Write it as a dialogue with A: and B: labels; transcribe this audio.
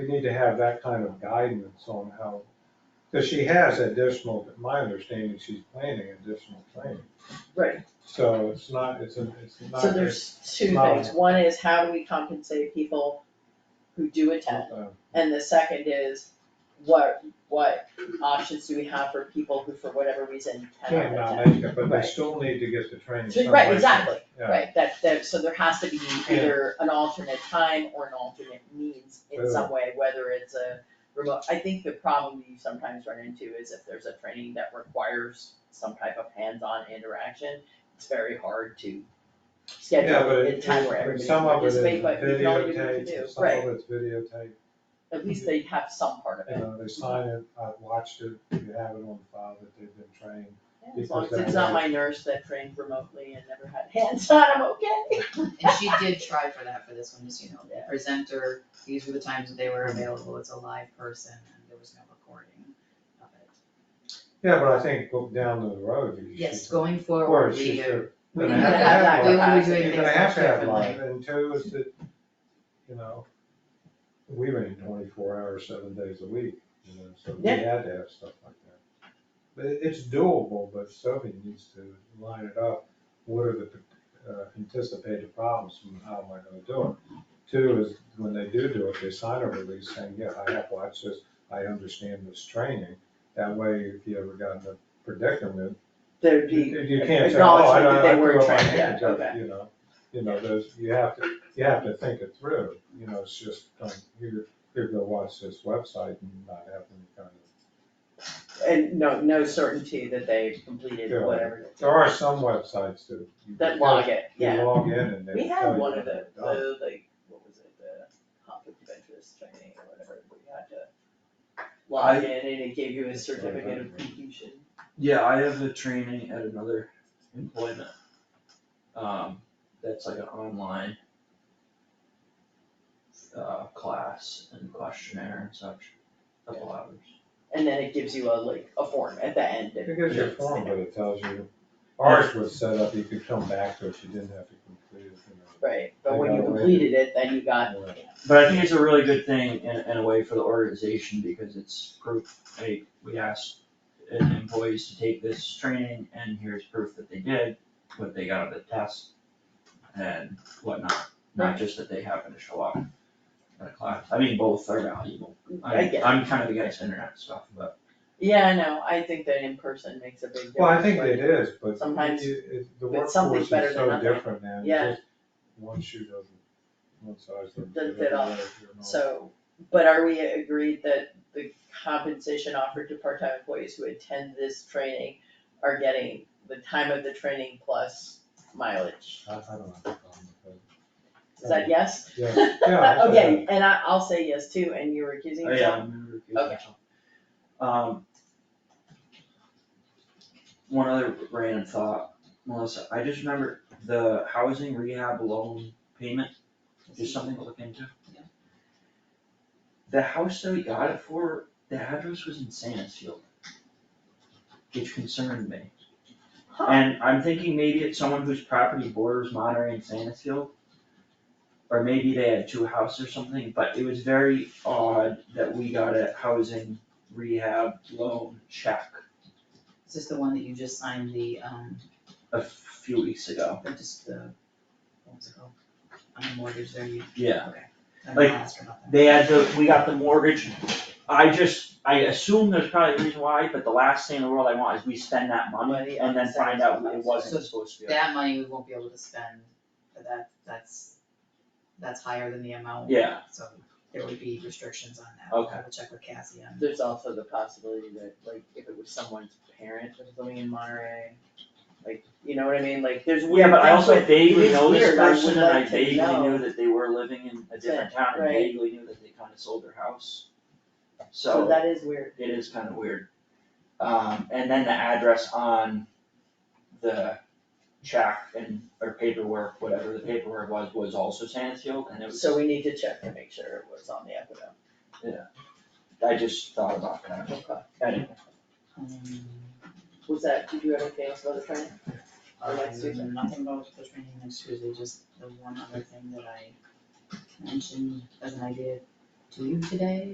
A: we need to have that kind of guidance on how, because she has additional, my understanding, she's planning additional training.
B: Right.
A: So it's not, it's, a- it's not.
B: So there's two
A: not-
B: things, one is how do we compensate people who do attend?
A: uh,
B: And the second is, what, what options do we have for people who, for whatever reason,
A: Can't
B: cannot
A: not
B: attend?
A: make it, but they
B: Right.
A: still need to get the training.
B: So-
A: somewhere.
B: Right, exactly,
A: Yeah.
B: right, that, that, so there has to be either an alternate time or an alternate means in some way, whether it's a remote, I think the problem that you sometimes run into is if there's a training that requires some type of hands-on interaction, it's very hard to
A: Yeah,
B: schedule
A: but
B: a
A: it-
B: time where
A: it-
B: everybody
A: some
B: can
A: of it is
B: participate, but you can only do what you
A: videotaped,
B: do,
A: and some
B: right,
A: of it's videotaped,
B: at least they have some part of
A: you
B: it,
A: know, they sign it, I've watched it, you have it on file that they've been trained.
B: as long as
A: because
B: it's
A: that-
B: not my nurse that trained remotely and never had hands-on, I'm okay.
C: And she did try for that for this one, just, you know, the
B: Yeah.
C: presenter, these were the times that they were available, it's a live person, and there was no recording of it.
A: Yeah, but I think go- down the road, you should.
C: Yes, going
A: Of
C: forward,
A: course,
C: we
A: you
C: do.
A: should.
C: We
A: You're gonna
C: need to
A: have to
C: have that,
A: have
C: we
A: one.
C: will be
B: You're
C: doing
A: You're gonna
C: things
A: have to have
C: differently.
A: live, and two is that, you know, we ran twenty-four hours, seven days a week, you know, so we
B: Yeah.
A: had to have stuff like that. But it- it's doable, but Sophie needs to line it up, what are the uh, anticipated problems, and how am I gonna do it? Two is, when they do do it, they sign a release saying, yeah, I have watched this, I understand this training. That way, if you ever got in a predicament,
B: There'd
A: you
B: be
A: you can't say, oh, I
B: acknowledgement that
A: don't,
B: they
A: I
B: were
A: threw up my
B: trained, yeah,
A: hands up,
B: okay.
A: you know, you know, there's, you have to, you have to think it through, you know, it's just, um, like, here, here, go watch this website and not have any kind of.
B: And no, no certainty that they completed
A: Yeah.
B: whatever.
A: There are some websites that. you
B: That
A: go-
B: log it,
A: You
B: yeah.
A: log in and they
B: We
A: tell
B: had
A: you
B: one
A: what
B: of the,
A: they've done.
B: the, like, what was it, the conflict of interest training or whatever, where you had to log in and it gave you a certificate of completion.
D: Yeah, I have a training at another employment. Um, that's like an online. Uh, class and questionnaire and such, couple hours.
B: And then it gives you a, like, a form at the end. that-
A: It gives you a
B: Yeah.
A: form, but it tells you, ours was set up, you could come back to it, you didn't have to complete it, you
B: Right, but when
A: They
B: you
A: got away.
B: completed it, then you got,
A: know.
D: But I think it's a really good thing in, in a way for the organization because it's proof, hey, we asked uh, employees to take this training and here's proof that they did, what they got out of the test and whatnot, not just that they happened to show up at a class. I mean, both are valuable.
B: I
D: I'm,
B: get,
D: I'm kind of against internet stuff, but
B: yeah, no, I think that in person makes a big difference.
A: Well, I think
B: but-
A: it is, but
B: Sometimes-
A: you- it- the
B: but
A: workforce
B: something's
A: is
B: better than
A: so
B: nothing.
A: different now.
B: Yeah.
A: just One shoe doesn't, one size doesn't.
B: Doesn't
A: fit
B: fit
A: all.
B: all.
A: You're not-
B: So, but are we agreed that the compensation offered to part-time employees who attend this training are getting the time of the training plus mileage?
A: I, I don't have a problem with
B: Is that yes?
A: that. Yeah, yeah. that's
B: Okay, and I, I'll say yes too, and you're accusing
D: oh yeah,
B: yourself?
D: I'm gonna recuse
B: Okay.
D: myself. Um. One other random thought, Melissa, I just remember the housing rehab loan payment Just something to look into.
C: Yeah.
D: The house that we got it for, the address was in Sanesfield. Which concerned me,
B: Huh,
D: and I'm thinking maybe it's someone whose property borders Monterey and Sanesfield. Or maybe they had two houses or something, but it was very odd that we got a housing rehab loan check
C: Is this the one that you just signed the, um,
D: a few weeks ago.
C: the, just the, what was it called? On the mortgage there, you,
D: Yeah,
C: I didn't
D: Like,
C: ask her about that.
D: They had the, we got the mortgage, I just, I assume there's probably a reason why, but the last thing in the world I want is we spend that money
B: Money
D: and
B: on
D: then find out
B: something
D: it
B: else.
D: wasn't supposed to be.
C: That money we won't be able to spend, but that, that's, that's higher than the amount,
D: Yeah,
C: so there would be restrictions on that.
D: Okay.
C: We'll check with Cassie on.
B: there's also the possibility that, like, if it was someone's parent that was living in Monterey, like, you know what I mean, like, there's weird
D: yeah, but I
B: things
D: also
B: with- it
D: vaguely
B: is
D: know this
B: weird, I would
D: person and I
B: like to
D: vaguely
B: know.
D: knew that they were living in a different town and
B: Right.
D: vaguely knew that they kinda sold their house.
B: So that is weird,
D: it is kind of weird. Um, and then the address on the check and, or paperwork, whatever the paperwork was, was also Sanesfield, and it was,
B: so we need to check to make sure it was on the Equinox.
D: I just thought about that.
B: Okay.
D: Anyway,
C: Um,
B: Was that, did you have anything else about the training? Or next
C: Um,
B: Tuesday.
C: Nothing about the training next Tuesday, just the one other thing that I mentioned as an idea due today